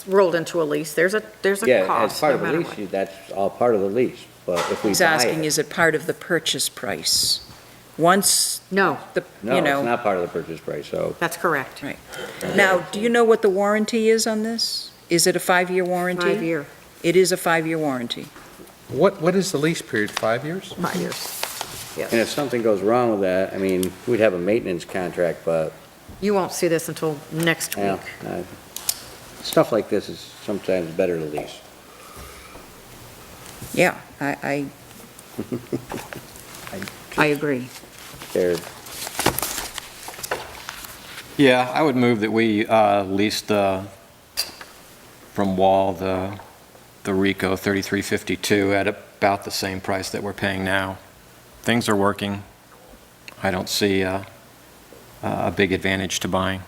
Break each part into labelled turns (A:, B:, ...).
A: it's rolled into a lease, there's a, there's a
B: Yeah, as
A: cost,
B: part
A: no
B: of the
A: matter
B: lease,
A: what.
B: you- that's all part of the lease, but if we
C: He's
B: buy
C: asking,
B: it,
C: is it part of the purchase price? Once
A: No,
C: the,
B: no,
C: you
B: it's
C: know,
B: not part of the purchase price, so.
A: that's correct.
C: now, do you know what the warranty is on this? Is it a five-year warranty?
A: Five-year.
C: It is a five-year warranty.
D: What, what is the lease period, five years?
A: Five years.
B: And if something goes wrong with that, I mean, we'd have a maintenance contract, but,
A: You won't see this until next
B: yeah,
A: week.
B: uh, stuff like this is sometimes better to lease.
C: Yeah, I, I, I agree.
B: They're
E: Yeah, I would move that we uh, lease the, from Wall, the, the Rico 3352 at about the same price that we're paying now. Things are working. I don't see a, a big advantage to buying.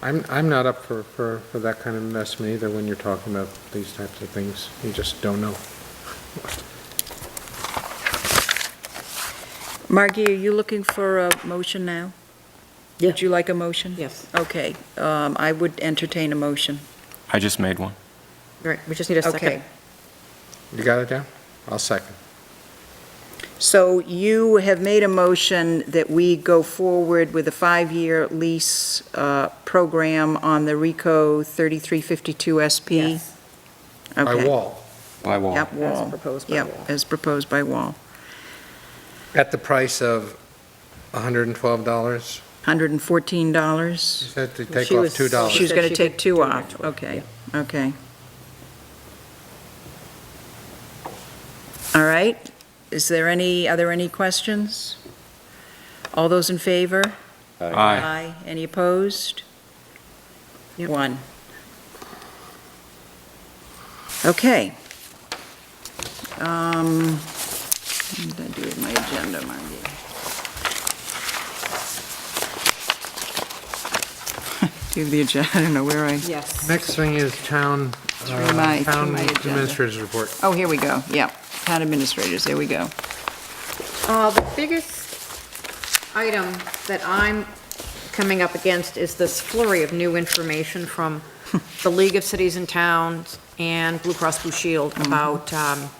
D: I'm, I'm not up for, for, for that kind of investment either when you're talking about these types of things. You just don't know.
C: Margie, are you looking for a motion now?
A: Yeah.
C: Would you like a motion?
A: Yes,
C: Okay, um, I would entertain a motion.
E: I just made one.
A: right, we just need a
C: Okay,
A: second.
D: You got it down? I'll second.
C: so you have made a motion that we go forward with a five-year lease uh, program on the RICO 3352 SP?
A: Yes,
D: By
C: Okay.
D: wall,
E: By Wall.
C: Yep,
A: As
C: Wall.
A: proposed by Wall.
C: Yep, as proposed by Wall.
D: at the price of $112, you
C: $114?
D: said to take
A: She
D: off
A: was-
D: $2.
C: She was
A: said
C: going
A: Oh. she
C: to take
A: could
C: two
A: do
C: off,
A: that.
C: okay, okay. All right, is there any, are there any questions? All those in favor?
E: Aye.
C: Any opposed?
A: Yep.
C: One. Okay. Um, What did I do with my agenda, Margie? Do you have the agenda? I don't know where I,
A: yes.
D: Next thing is town,
C: Through my- through
D: uh, town
C: my agenda.
D: administrator's report.
C: oh, here we go, yeah. Town administrators, there we go.
A: Uh, The biggest item that I'm coming up against is this flurry of new information from the League of Cities and Towns and Blue Cross Blue Shield about um,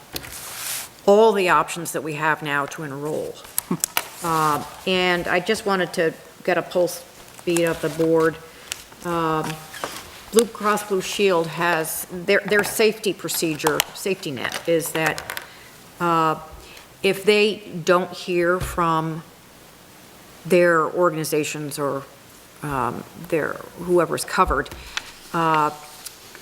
A: all the options that we have now to enroll. Uh, And I just wanted to get a pulse beat of the board. Um, Blue Cross Blue Shield has, their, their safety procedure, safety net, is that uh, if they don't hear from their organizations or um, their, whoever's covered, uh,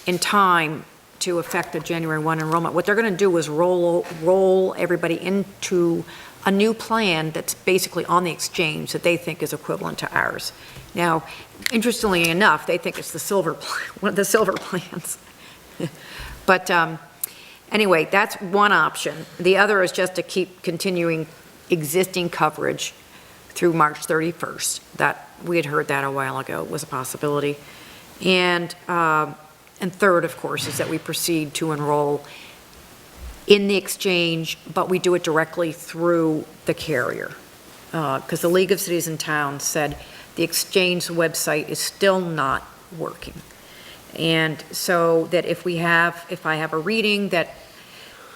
A: in time to affect the January 1 enrollment, what they're going to do is roll, roll everybody into a new plan that's basically on the exchange that they think is equivalent to ours. Now, interestingly enough, they think it's the silver, pl- one of the silver plans. But um, anyway, that's one option. The other is just to keep continuing existing coverage through March 31st. That, we had heard that a while ago was a possibility. And, um, and third, of course, is that we proceed to enroll in the exchange, but we do it directly through the carrier. Because the League of Cities and Towns said the exchange website is still not working. And so that if we have, if I have a reading that,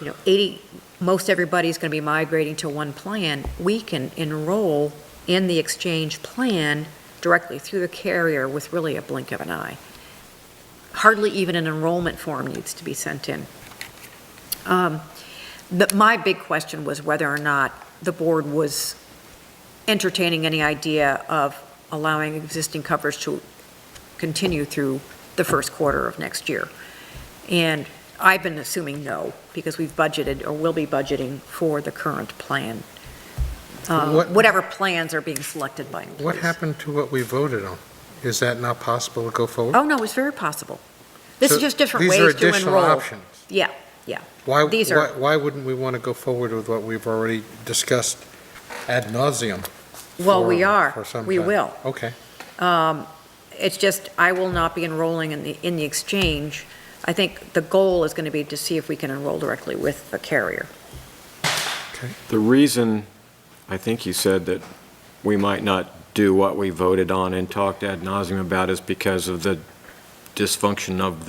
A: you know, 80, most everybody's going to be migrating to one plan, we can enroll in the exchange plan directly through the carrier with really a blink of an eye. Hardly even an enrollment form needs to be sent in. Um, But my big question was whether or not the board was entertaining any idea of allowing existing coverage to continue through the first quarter of next year. And I've been assuming no, because we've budgeted or will be budgeting for the current plan, uh,
D: What-
A: whatever plans are being selected by employees.
D: What happened to what we voted on? Is that not possible to go forward?
A: Oh, no, it's very possible. This is
D: So
A: just different
D: These are
A: ways to
D: additional
A: enroll.
D: options.
A: Yeah, yeah.
D: Why,
A: These are-
D: why, why wouldn't we want to go forward with what we've already discussed ad nauseum?
A: Well, we
D: for-
A: are.
D: for some
A: We
D: time?
A: will.
D: Okay.
A: Um, It's just, I will not be enrolling in the, in the exchange. I think the goal is going to be to see if we can enroll directly with the carrier.
E: The reason, I think you said that we might not do what we voted on and talked ad nauseum about is because of the dysfunction of the.